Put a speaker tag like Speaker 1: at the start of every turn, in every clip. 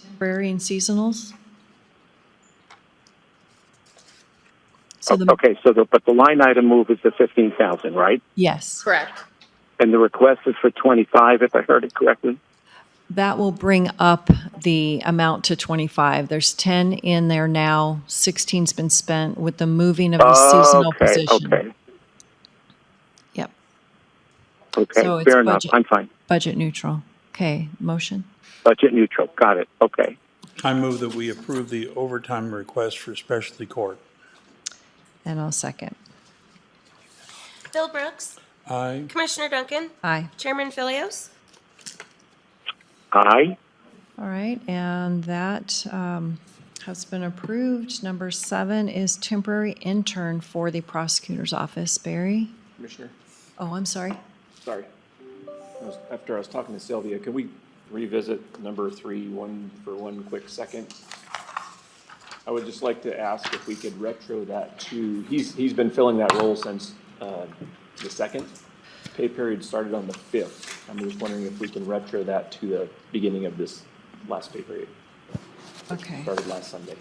Speaker 1: temporary and seasonals? So the,
Speaker 2: Okay, so the, but the line item move is the fifteen thousand, right?
Speaker 1: yes,
Speaker 3: Correct.
Speaker 2: And the request is for twenty-five, if I heard it correctly?
Speaker 1: that will bring up the amount to 25. There's 10 in there now, 16's been spent with the moving of the seasonal
Speaker 2: Okay,
Speaker 1: position.
Speaker 2: okay,
Speaker 1: Yep, So
Speaker 2: okay,
Speaker 1: it's
Speaker 2: fair enough,
Speaker 1: budget-
Speaker 2: I'm fine.
Speaker 1: budget neutral. Okay, motion?
Speaker 2: Budget neutral, got it, okay.
Speaker 4: I move that we approve the overtime request for specialty court.
Speaker 1: And I'll second.
Speaker 3: Bill Brooks,
Speaker 4: Aye.
Speaker 3: Commissioner Duncan,
Speaker 1: Aye.
Speaker 3: Chairman Philios.
Speaker 2: Aye,
Speaker 1: All right, and that um, has been approved. Number seven is temporary intern for the prosecutor's office. Barry?
Speaker 5: Commissioner,
Speaker 1: Oh, I'm sorry.
Speaker 5: sorry. I was- After I was talking to Sylvia, could we revisit number three, one, for one quick second? I would just like to ask if we could retro that to, he's, he's been filling that role since uh, the second. Pay period started on the fifth. I'm just wondering if we can retro that to the beginning of this last pay period,
Speaker 1: Okay.
Speaker 5: started last Sunday.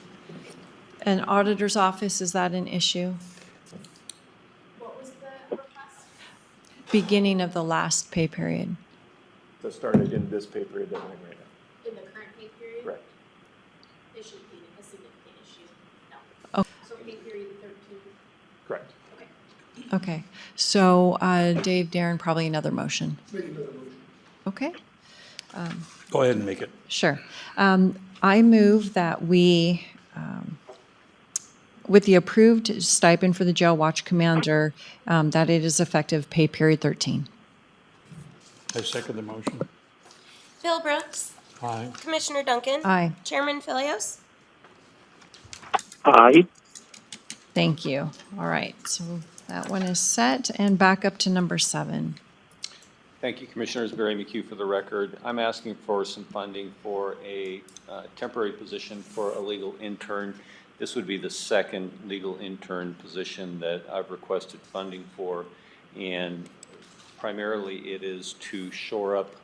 Speaker 1: An auditor's office, is that an issue? Beginning of the last pay period.
Speaker 5: So started in this pay period that we're in right now.
Speaker 6: in the current pay period,
Speaker 5: Correct.
Speaker 6: it should be a significant issue. No.
Speaker 1: Oh.
Speaker 6: So pay period thirteen,
Speaker 5: Correct.
Speaker 1: Okay, so uh, Dave, Darren, probably another motion. Okay.
Speaker 4: Go ahead and make it.
Speaker 1: Sure. Um, I move that we, um, with the approved stipend for the jail watch commander, um, that it is effective pay period 13.
Speaker 4: I second the motion.
Speaker 3: Bill Brooks,
Speaker 4: Aye.
Speaker 3: Commissioner Duncan.
Speaker 1: Aye.
Speaker 3: Chairman Philios.
Speaker 2: aye,
Speaker 1: Thank you. All right, so that one is set, and back up to number seven.
Speaker 7: Thank you, Commissioners. Barry McHugh for the record. I'm asking for some funding for a uh, temporary position for a legal intern. This would be the second legal intern position that I've requested funding for. And primarily, it is to shore up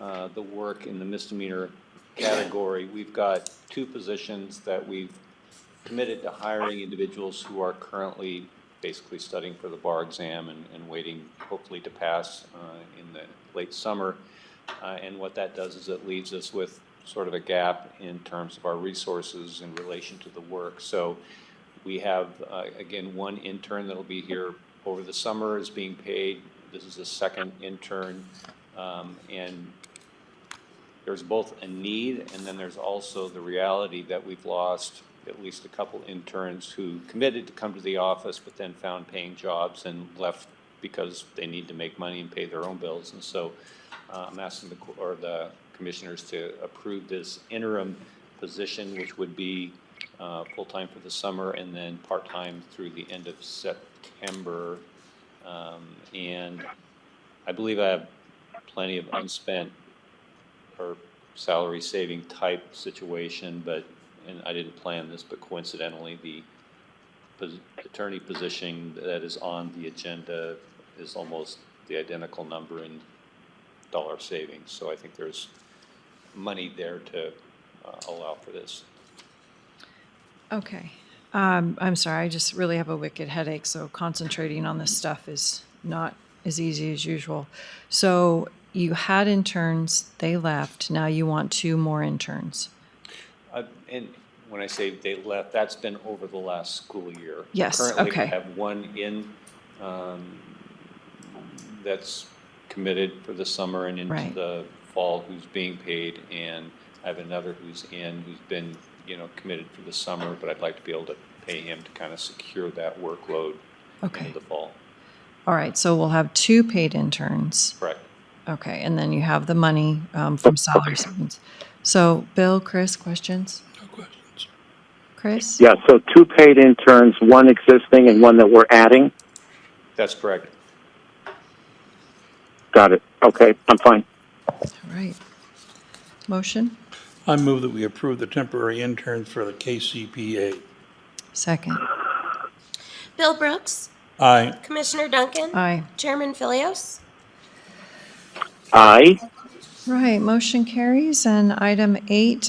Speaker 7: uh, the work in the misdemeanor category. We've got two positions that we've committed to hiring individuals who are currently basically studying for the bar exam and, and waiting hopefully to pass uh, in the late summer. Uh, And what that does is it leaves us with sort of a gap in terms of our resources in relation to the work. So we have, uh, again, one intern that'll be here over the summer is being paid. This is the second intern. Um, And there's both a need and then there's also the reality that we've lost at least a couple interns who committed to come to the office but then found paying jobs and left because they need to make money and pay their own bills. And so uh, I'm asking the, co- or the commissioners to approve this interim position, which would be uh, full-time for the summer and then part-time through the end of September. Um, And I believe I have plenty of unspent or salary saving type situation, but, and I didn't plan this, but coincidentally, the pos- attorney position that is on the agenda is almost the identical number in dollar savings. So I think there's money there to uh, allow for this.
Speaker 1: Okay. Um, I'm sorry, I just really have a wicked headache, so concentrating on this stuff is not as easy as usual. So you had interns, they left, now you want two more interns.
Speaker 7: Uh, And when I say they left, that's been over the last school year.
Speaker 1: Yes,
Speaker 7: Currently,
Speaker 1: okay.
Speaker 7: we have one in, um, that's committed for the summer and into
Speaker 1: Right.
Speaker 7: the fall who's being paid. And I have another who's in, who's been, you know, committed for the summer, but I'd like to be able to pay him to kind of secure that workload
Speaker 1: Okay.
Speaker 7: into the fall.
Speaker 1: All right, so we'll have two paid interns.
Speaker 7: Correct.
Speaker 1: Okay, and then you have the money um, from salary savings. So, Bill, Chris, questions?
Speaker 4: No questions.
Speaker 1: Chris?
Speaker 2: yeah, so two paid interns, one existing and one that we're adding,
Speaker 7: That's correct.
Speaker 2: got it, okay, I'm fine.
Speaker 1: All right. Motion?
Speaker 4: I move that we approve the temporary interns for the KCPA.
Speaker 1: Second.
Speaker 3: Bill Brooks,
Speaker 4: Aye.
Speaker 3: Commissioner Duncan.
Speaker 1: Aye.
Speaker 3: Chairman Philios.
Speaker 2: Aye.
Speaker 1: Right, motion carries. And item eight